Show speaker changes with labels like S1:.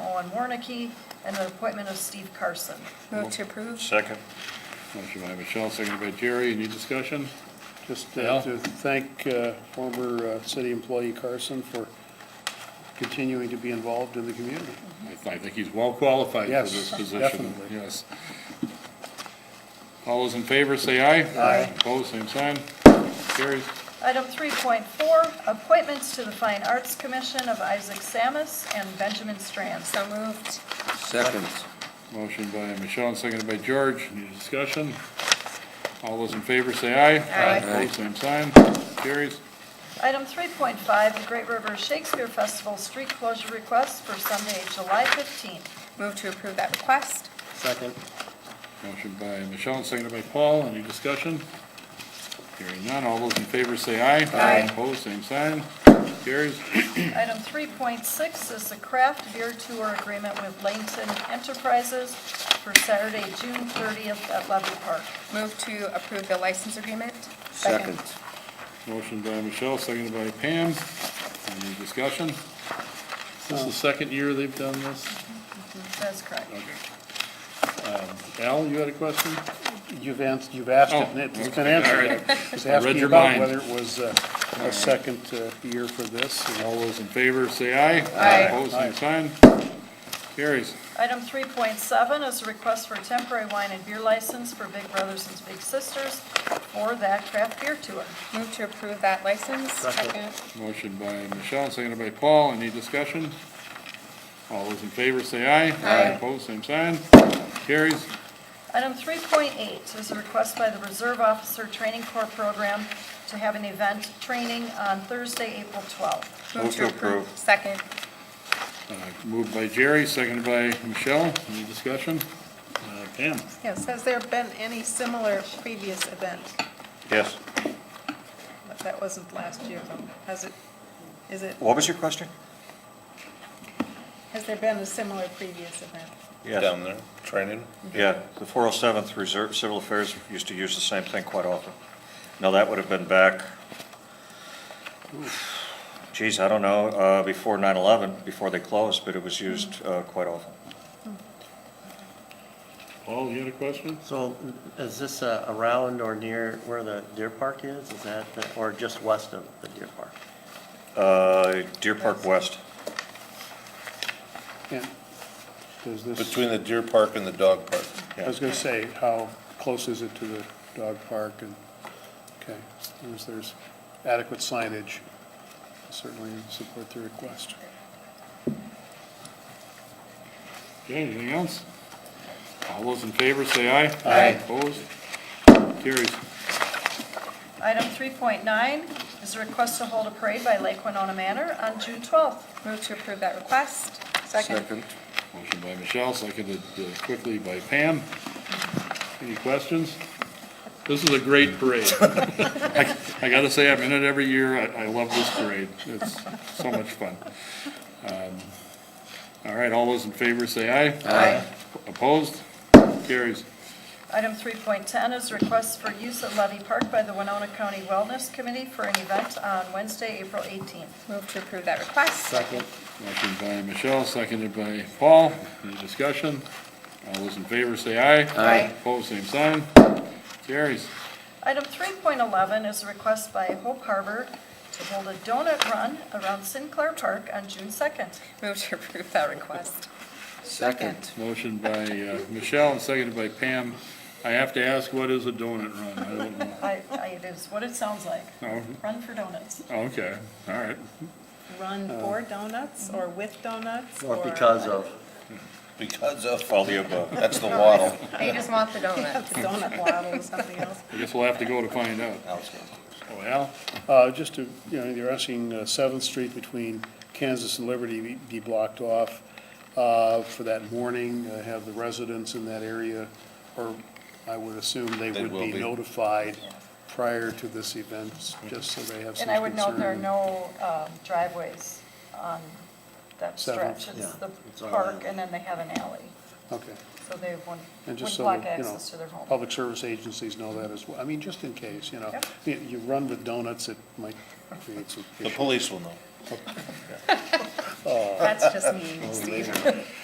S1: John Warnicki, and the appointment of Steve Carson.
S2: Move to approve.
S3: Second.
S4: Motion by Michelle, seconded by Jerry. Any discussion?
S5: Just
S4: Al?
S5: uh, to thank uh, former uh, city employee Carson for continuing to be involved in the community.
S4: I th- I think he's well qualified for
S5: Yes,
S4: this position.
S5: definitely.
S4: Yes. All those in favor, say aye.
S5: Aye.
S4: Opposed, same sign. Carries.
S1: Item 3.4, appointments to the Fine Arts Commission of Isaac Samus and Benjamin Strands.
S2: So moved.
S3: Second.
S4: Motion by Michelle, seconded by George. Any discussion? All those in favor, say aye.
S2: Aye.
S4: Opposed, same sign. Carries.
S1: Item 3.5, the Great River Shakespeare Festival street closure request for Sunday, July 15th.
S2: Move to approve that request.
S6: Second.
S4: Motion by Michelle, seconded by Paul. Any discussion? Hearing none. All those in favor, say aye.
S2: Aye.
S4: Opposed, same sign. Carries.
S1: Item 3.6 is the craft beer tour agreement with Langton Enterprises for Saturday, June 30th at Levy Park.
S2: Move to approve the license agreement.
S3: Second.
S4: Motion by Michelle, seconded by Pam. Any discussion? This is the second year they've done this?
S1: That's correct.
S4: Okay. Um, Al, you had a question?
S5: You've answered, you've asked it,
S4: Oh,
S5: and it's
S4: okay,
S5: been
S4: all
S5: answered.
S4: right.
S5: I was
S4: I read
S5: asking
S4: your
S5: about
S4: mind.
S5: whether it was uh, a second uh, year for this. and
S4: All those in favor, say aye.
S2: Aye.
S4: Opposed, same sign. Carries.
S1: Item 3.7 is a request for temporary wine and beer license for Big Brothers and Big Sisters for that craft beer tour.
S2: Move to approve that license. Second.
S4: Motion by Michelle, seconded by Paul. Any discussion? All those in favor, say aye.
S2: Aye.
S4: Opposed, same sign. Carries.
S1: Item 3.8 is a request by the Reserve Officer Training Corps Program to have an event training on Thursday, April 12th.
S2: Move to approve. Second.
S4: Uh, Moved by Jerry, seconded by Michelle. Any discussion? Uh, Pam?
S7: Yes, has there been any similar previous event?
S3: Yes.
S7: That wasn't last year, though. Has it, is it,
S6: What was your question?
S7: has there been a similar previous event?
S6: Yes.
S3: Down there, training.
S6: Yeah, the 407th Reserve Civil Affairs used to use the same thing quite often. Now, that would have been back, geez, I don't know, uh, before 9/11, before they closed, but it was used uh, quite often.
S4: Paul, you had a question?
S8: So is this uh, around or near where the deer park is? Is that, the- or just west of the deer park?
S6: Uh, Deer Park West,
S5: and Does this,
S3: Between the deer park and the dog park.
S5: I was going to say, how close is it to the dog park? And, okay, as long as there's adequate signage, certainly support the request.
S4: Okay, anything else? All those in favor, say aye.
S5: Aye.
S4: Opposed? Carries.
S1: Item 3.9 is a request to hold a parade by Lake Winona Manor on June 12th.
S2: Move to approve that request. Second.
S4: Motion by Michelle, seconded uh, quickly by Pam. Any questions? This is a great parade. I I gotta say, I'm in it every year. I, I love this parade. It's so much fun. Um, All right, all those in favor, say aye. Aye. Opposed? Carries.
S1: Item 3.10 is a request for use at Levy Park by the Winona County Wellness Committee for an event on Wednesday, April 18th.
S2: Move to approve that request.
S6: Second.
S4: Motion by Michelle, seconded by Paul. Any discussion? All those in favor say aye.
S2: Aye.
S4: Opposed, same sign. Carries.
S1: Item 3.11 is a request by Hope Harbor to hold a donut run around Sinclair Park on June 2nd.
S2: Move to approve that request.
S4: Motion by uh, Michelle and seconded by Pam. I have to ask, what is a donut run? I don't know.
S1: I- I- It is what it sounds like.
S4: Oh,
S7: Run for donuts.
S4: Okay, all right.
S7: Run for donuts or with donuts?
S8: Uh, Or because of?
S3: Because of,
S6: all the above.
S3: that's the waddle.
S2: They just want the donut.
S7: That's a donut waddle or something else.
S4: I guess we'll have to go to find out. Oh, Al?
S5: Uh, Just to, you know, you're asking uh, Seventh Street between Kansas and Liberty be- be blocked off uh, for that morning, uh, have the residents in that area, or I would assume they
S3: They
S5: would
S3: will
S5: be
S3: be.
S5: notified prior to this event, just so they have some concern.
S1: And I would note there are no um, driveways on that
S5: Seventh,
S1: stretch. It's
S8: yeah,
S1: the
S8: it's all
S1: park
S8: alley.
S1: and then they have an alley.
S5: Okay,
S1: So they wouldn't,
S5: and
S1: wouldn't
S5: just so,
S1: block
S5: you know,
S1: access to their home.
S5: public service agencies know that as well. I mean, just in case, you know.
S1: Yep.
S5: You you run with donuts, it might create some
S3: The
S5: issues.
S3: police will know.
S2: That's just me, Steve.